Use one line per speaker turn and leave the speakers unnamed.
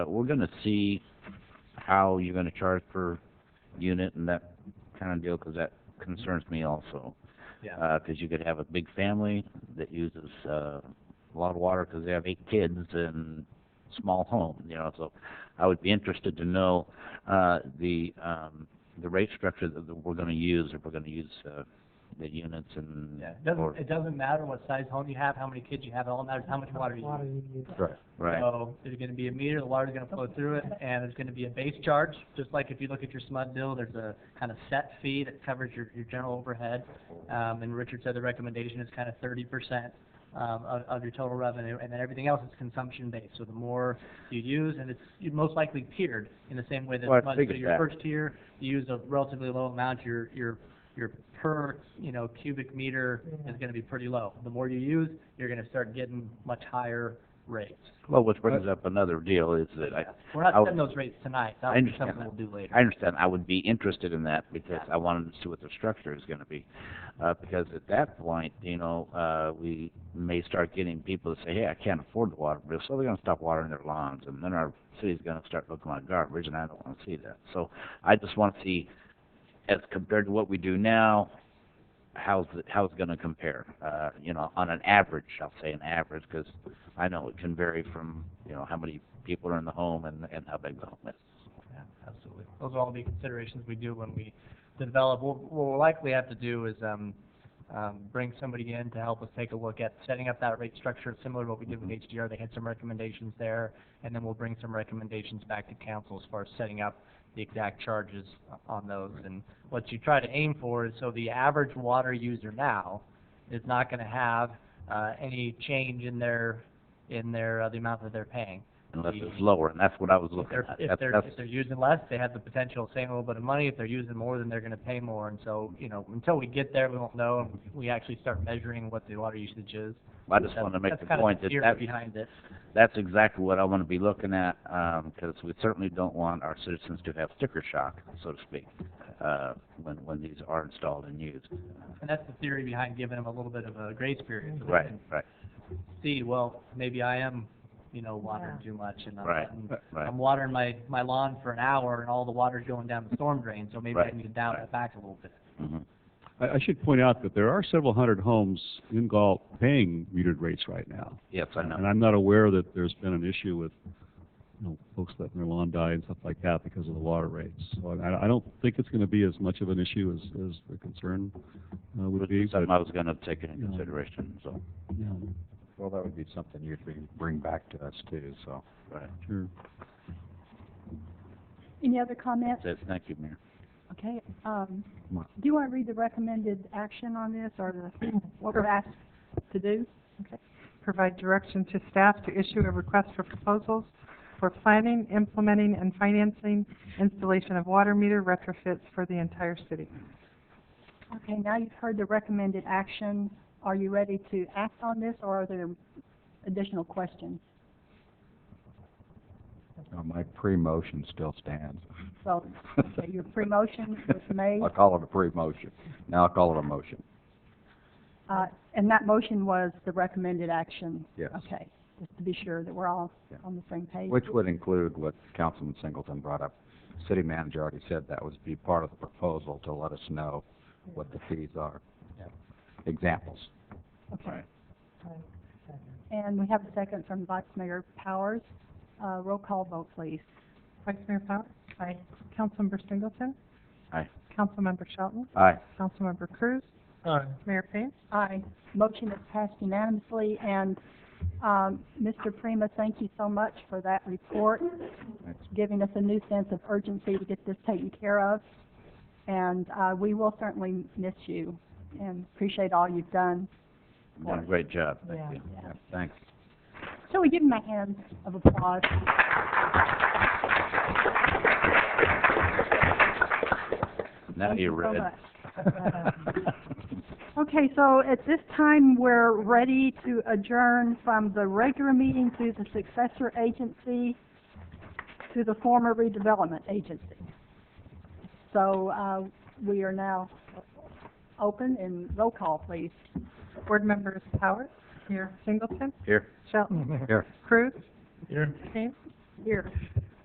but we're gonna see how you're gonna charge per unit and that kind of deal, 'cause that concerns me also.
Yeah,
Uh 'cause you could have a big family that uses, uh, a lot of water 'cause they have eight kids and small home, you know, so I would be interested to know, uh, the, um, the rate structure that that we're gonna use, if we're gonna use, uh, the units and.
yeah, it
or-
doesn't, it doesn't matter what size home you have, how many kids you have, it all matters how much water you use.
Right,
So there's gonna be a meter, the water's gonna flow through it, and there's gonna be a base charge, just like if you look at your SMUD bill, there's a kind of set fee that covers your, your general overhead. Um, and Richard said the recommendation is kind of thirty percent, um, of, of your total revenue, and then everything else is consumption-based. So the more you use, and it's, you're most likely tiered in the same way that
Well, I
SMUD.
figured
So your
that.
first tier, you use a relatively low amount, your, your, your per, you know, cubic meter is gonna be pretty low. The more you use, you're gonna start getting much higher rates.
well, which brings up another deal is that I,
We're not
I would-
setting those rates tonight,
I
that'll be
understand
something we'll do later.
I understand, I would be interested in that because I wanted to see what the structure is gonna be. Uh, because at that point, you know, uh, we may start getting people to say, hey, I can't afford the water bill, so they're gonna stop watering their lawns and then our city's gonna start looking like garbage and I don't wanna see that. So I just wanna see, as compared to what we do now, how's it, how's it gonna compare? Uh, you know, on an average, I'll say an average, 'cause I know it can vary from, you know, how many people are in the home and, and how big the home is.
Yeah, Absolutely. Those are all the considerations we do when we develop. What what we'll likely have to do is, um, um, bring somebody in to help us take a look at setting up that rate structure, similar to what we did with HDR. They had some recommendations there, and then we'll bring some recommendations back to council as far as setting up the exact charges on those. And what you try to aim for is, so the average water user now is not gonna have, uh, any change in their, in their, uh, the amount that they're paying.
unless it's lower, and that's what I was
If
looking
they're,
at.
if
That's-
they're,
that's-
if they're using less, they have the potential of saving a little bit of money. If they're using more, then they're gonna pay more. And so, you know, until we get there, we won't know, and we actually start measuring what the water usage is.
Mm-hmm. I just wanna make the point that
That's kind of the
that,
theory behind it.
that's exactly what I wanna be looking at, um, 'cause we certainly don't want our citizens to have sticker shock, so to speak, uh, when, when these are installed and used.
And that's the theory behind giving them a little bit of a grace period. so they
Right,
can
right,
See, well, maybe I am, you know, watering too much, and I'm,
Right,
letting-
right.
Um,
I'm watering my, my lawn for an hour, and all the water's going down the storm drain, so maybe I
Right,
need to down
right.
it back a little bit.
mhm.
I, I should point out that there are several hundred homes in Galt paying metered rates right now.
Yes, I know.
And I'm not aware that there's been an issue with, you know, folks letting their lawn die and stuff like that because of the water rates. So I, I don't think it's gonna be as much of an issue as, as the concern uh, would be, but,
Something I was gonna take into
Yeah.
consideration, so,
you know,
Well, that would be something you'd bring, bring back to us too, so.
right.
sure.
Any other comments?
That's, thank you, Mayor.
Okay, um,
Ma-
do you want to read the recommended action on this or the, what we're asked to do?
provide direction to staff to issue a request for proposals for planning, implementing, and financing installation of water meter retrofits for the entire city.
Okay, now you've heard the recommended action. Are you ready to act on this or are there additional questions?
uh, My pre-motion still stands.
So, okay, your pre-motion was made,
I'll call it a pre-motion. Now I'll call it a motion.
uh, and that motion was the recommended action?
Yes.
Okay, just to be sure that we're all
Yeah.
on the same page.
Which would include what Councilman Singleton brought up. City manager already said that would be part of the proposal to let us know what the fees are.
Yeah.
Examples.
Okay. And we have a second from Vice Mayor Powers. Uh, roll call vote, please.
Vice Mayor Powers? Aye. Councilmember Singleton?
Aye.
Councilmember Shelton?
Aye.
Councilmember Cruz? Mayor Payne?
Aye. Motion is passed unanimously, and, um, Mr. Prima, thank you so much for that report,
Thanks.
giving us a new sense of urgency to get this taken care of. And, uh, we will certainly miss you and appreciate all you've done.
You've Done a great job,
Yeah.
thank you.
Yeah, Thanks.
Shall we give him a hand of applause?
Now
Thank you
you're
so
ready.
much. Okay, so at this time, we're ready to adjourn from the regular meeting to the successor agency, to the former redevelopment agency. So, uh, we are now open and roll call, please.
Board members Powers? Here. Singleton?
Here.
Shelton?
Here.
Cruz? Here. Payne?
here.